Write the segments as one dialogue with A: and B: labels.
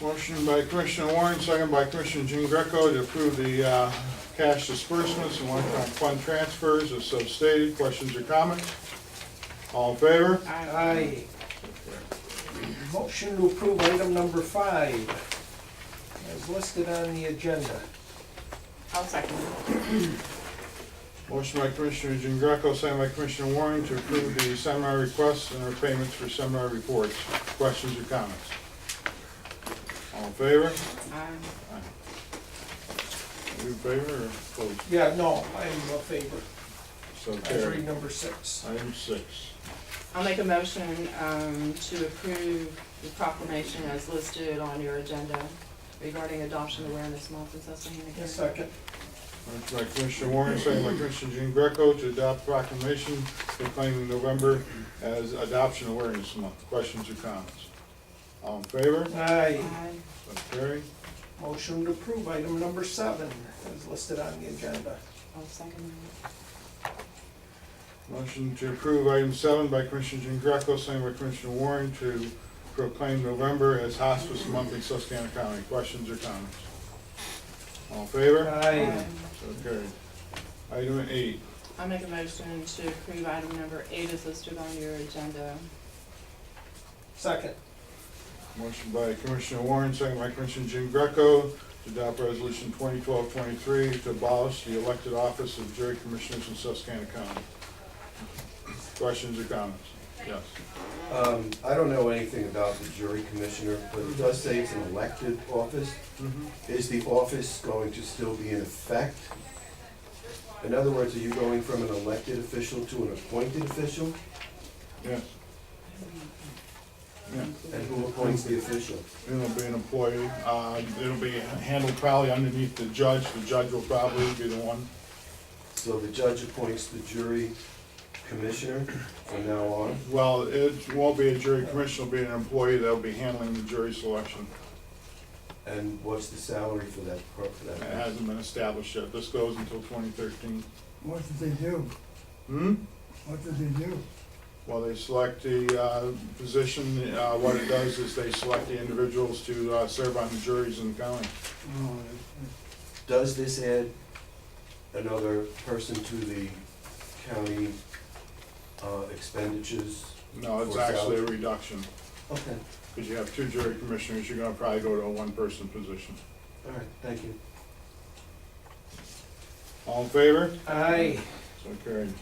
A: Motion by Commissioner Warren, second by Commissioner Jean Greco to approve the uh, cash disbursements and one-time fund transfers as so stated. Questions or comments? All in favor?
B: Aye. Motion to approve item number five as listed on the agenda.
C: I'll second.
A: Motion by Commissioner Jean Greco, second by Commissioner Warren to approve the seminar requests and our payments for seminar reports. Questions or comments? All in favor?
C: Aye.
A: Are you in favor or opposed?
B: Yeah, no, I'm in favor.
A: So
B: I was
A: carried.
B: reading number six.
A: Item six.
C: I'll make a motion um, to approve the proclamation as listed on your agenda regarding Adoption Awareness Month in Susquehanna
B: A
C: County.
B: second.
A: Motion by Commissioner Warren, second by Commissioner Jean Greco to adopt proclamation proclaiming November as Adoption Awareness Month. Questions or comments? All in favor?
B: Aye.
C: Aye.
A: So carried.
B: Motion to approve item number seven as listed on the agenda.
C: I'll second that.
A: Motion to approve item seven by Commissioner Jean Greco, second by Commissioner Warren to proclaim November as Hospice Month in Susquehanna County. Questions or comments? All in favor?
B: Aye.
A: So carried. Item eight.
C: Um, I'll make a motion to approve item number eight as listed on your agenda.
B: Second.
A: Motion by Commissioner Warren, second by Commissioner Jean Greco to adopt resolution 2012-23 to abolish the elected office of jury commissioners in Susquehanna County. Questions or comments? Yes.
D: Um, I don't know anything about the jury commissioner, but it does say it's an elected office.
A: Mm-hmm.
D: Is the office going to still be in effect? In other words, are you going from an elected official to an appointed official?
A: Yes. Yeah.
D: And who appoints the official?
A: It'll be an employee, uh, it'll be handled probably underneath the judge, the judge will probably be the one.
D: So the judge appoints the jury commissioner from now on?
A: Well, it won't be a jury commissioner, it'll be an employee that'll be handling the jury selection.
D: And what's the salary for that, pro- for
A: It
D: that?
A: hasn't been established yet, this goes until twenty thirteen.
E: What did they do?
A: Hmm?
E: What did they do?
A: Well, they select the, uh, position, uh, what it does is they select the individuals to, uh, serve on the juries in the county.
E: Oh,
D: Does this add another person to the county uh, expenditures?
A: No, it's
D: For salary?
A: actually a reduction,
D: Okay,
A: because you have two jury commissioners, you're gonna probably go to a one-person position.
D: all right, thank you.
A: All in favor?
B: Aye.
A: So carried.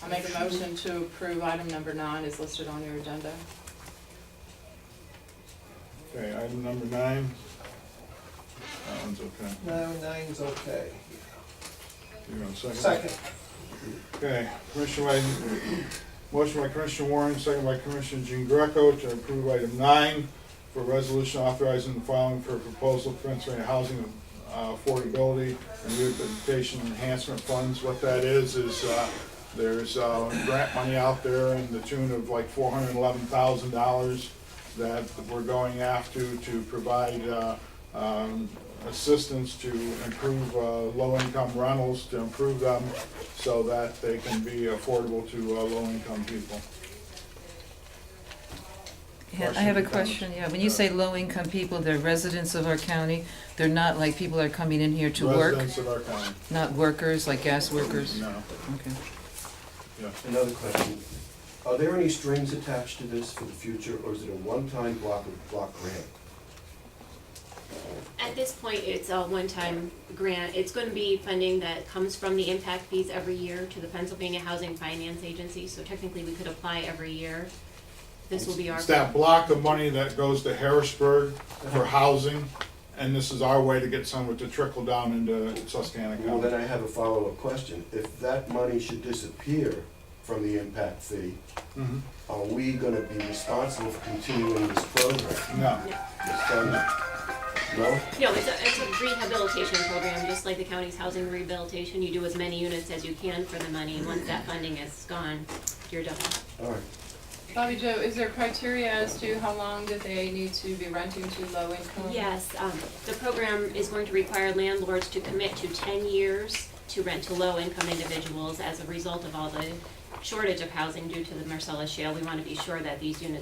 C: I'll make a motion to approve item number nine as listed on your agenda.
A: Okay, item number nine. That one's okay.
B: No, nine's okay.
A: You're on second?
B: Second.
A: Okay, Commissioner by, motion by Commissioner Warren, second by Commissioner Jean Greco to approve item nine for resolution authorizing the filing for a proposal for entering housing uh, affordability and rehabilitation enhancement funds. What that is, is uh, there's uh, grant money out there in the tune of like four hundred and eleven thousand dollars that we're going after to provide uh, um, assistance to improve uh, low-income rentals, to improve them so that they can be affordable to uh, low-income people.
F: Yeah, I have a
A: Question.
F: question, yeah, when you say low-income people, they're residents of our county, they're not like people that are coming in here to work,
A: Residents of our county.
F: not workers, like gas workers?
A: No.
F: Okay.
D: Another question. Are there any strings attached to this for the future, or is it a one-time block of block grant?
G: At this point, it's a one-time grant. It's going to be funding that comes from the impact fees every year to the Pennsylvania Housing Finance Agency, so technically we could apply every year. This will be our.
A: It's that block of money that goes to Harrisburg
F: Uh-huh.
A: for housing, and this is our way to get some of it to trickle down into Susquehanna
D: Well, then
A: County.
D: I have a follow-up question. If that money should disappear from the impact fee,
A: Mhm.
D: are we gonna be responsible for continuing this program?
A: No,
D: This fund? No?
G: No, it's a, it's a rehabilitation program, just like the county's housing rehabilitation. You do as many units as you can for the money. Once that funding is gone, you're done.
D: All right.
C: Bobby Joe, is there criteria as to how long that they need to be renting to low income?
G: Yes, um, the program is going to require landlords to commit to ten years to rent to low-income individuals as a result of all the shortage of housing due to the Marcellus Shale. We want to be sure that these units